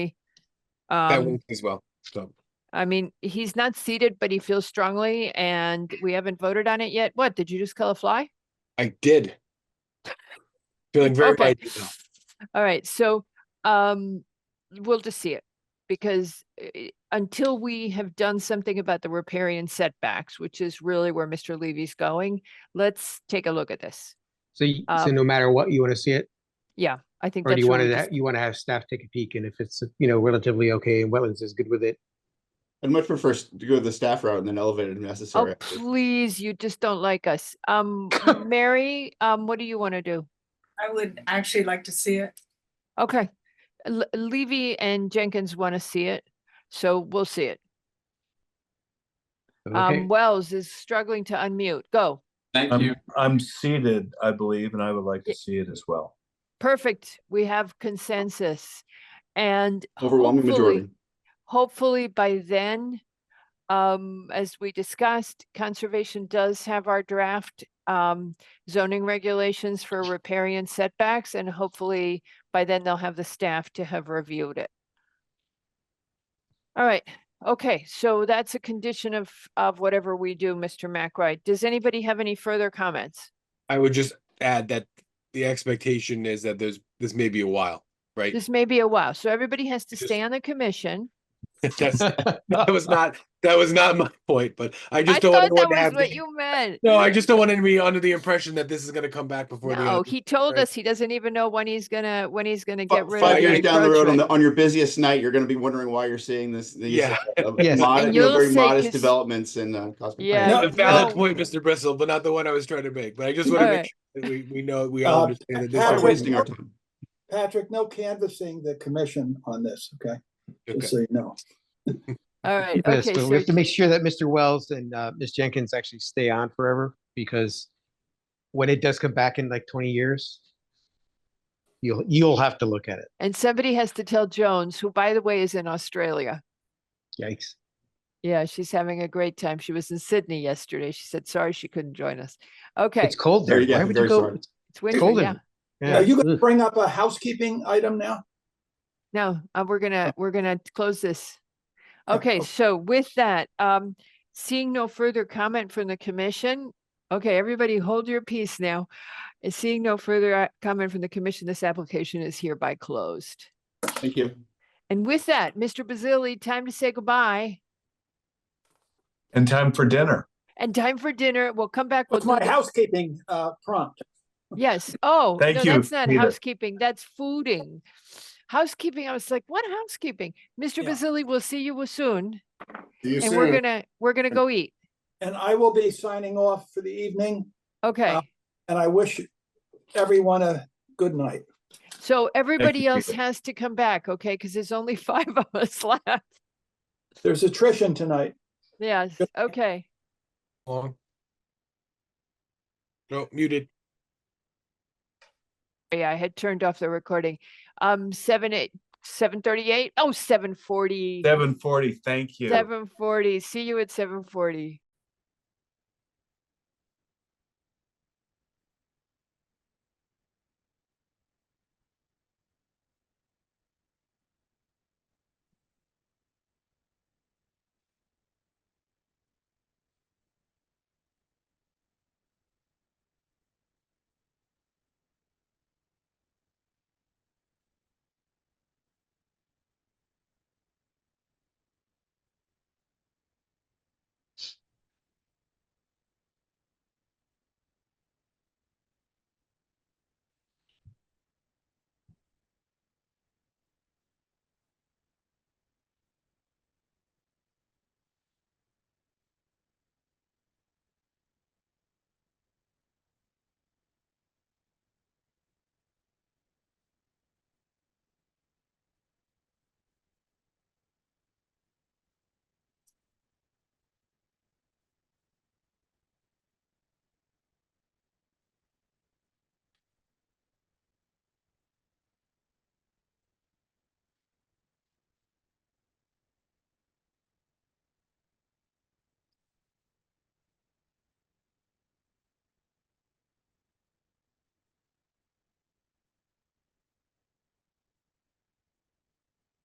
That Um, week as well, so. I mean, he's not seated, but he feels strongly and we haven't voted on it yet. What, did you just kill a fly? I did. Feeling very Okay. bad right now. Oh, All right, so, um, we'll just see it. Because uh, until we have done something about the riparian setbacks, which is really where Mr. Levy's going, let's take a look at this. So, you- so Um, no matter what, you want to see it, Yeah, I think or that's. do you where want we to, just- you want to have staff take a peek, and if it's, you know, relatively okay and Wetlands is good with it, I'd much prefer s- to go the staff route and then elevated if necessary. Oh, please, you just don't like us. Um, Mary, um, what do you want to do? I would actually like to see it. Okay, Le- Levy and Jenkins want to see it, so we'll see it. okay? Um, Wells is struggling to unmute. Go. Thank I'm, Um, I'm seated, I believe, and I would like to see it as well. Perfect. We have consensus. And Overwhelming hopefully- majority. Hopefully by then, um, as we discussed, conservation does have our draft, um, zoning regulations for riparian setbacks and hopefully by then they'll have the staff to have reviewed it. All right, okay, so that's a condition of, of whatever we do, Mr. McRae. Does anybody have any further comments? I would just add that the expectation is that there's, this may be a while, right? This may be a while, so everybody has to Just- stay on the commission. That's, that was not, that was not my point, but I I just don't thought that want anyone to was have. what the- you meant. No, I just don't want anyone to be under the impression that this is gonna come back before the. end No, of the- he told right? us he doesn't even know when he's gonna, when he's gonna Fi- get rid of. Five years the down the road on encroachment. the, on your busiest night, you're gonna be wondering why you're seeing this, these Yeah. uh, uh, Yes. mod- And you know, you'll very say modest this- developments in, uh. Cosmic Yeah. Plane. No, a valid No. point, Mr. Bristol, but not the one I was trying to make, but I just wanna make Alright. sure that we, we know, we all Um, Uh, understand that We're this. Patrick- is- wasting our time. Patrick, no canvassing the commission on this, okay? Okay. Just so you know. All right, Yes, okay, but we have to so, make sure that Mr. Wells and, uh, Ms. Jenkins actually stay on forever, because when it does come back in like twenty years, you'll, you'll have to look at it. and somebody has to tell Jones, who by the way is in Australia. Yikes. Yeah, she's having a great time. She was in Sydney yesterday. She said, sorry, she couldn't join us. Okay, It's cold there. Very, yeah, Why would you very go? sorry. it's winter, cold in- yeah. Yeah. Are you gonna Ugh. bring up a housekeeping item now? No, uh, we're gonna, we're gonna close this. Yeah, Okay, okay. so with that, um, seeing no further comment from the commission. Okay, everybody hold your peace now. And Seeing no further uh, comment from the commission, this application is hereby closed. Thank you. And with that, Mr. Bazili, time to say goodbye And time for dinner. and time for dinner. We'll come back. We'll What's do my the- housekeeping uh, prompt? Yes. Oh, no, Thank you, that's not Peter. housekeeping. That's fooding. Housekeeping. I was like, what housekeeping? Mr. Yeah. Bazili, we'll see you soon. See you And we're gonna, we're gonna go eat. And I will be signing off for the evening, Okay. Um, and I wish everyone a good night. So everybody you, else Peter. has to come back, okay? Because there's only five of us left. There's attrition tonight. Yes, okay. Long. No, muted. Yeah, I had turned off the recording. Um, seven, eight, seven thirty-eight? Oh, seven forty. Seven forty, thank you. Seven forty. See you at seven forty.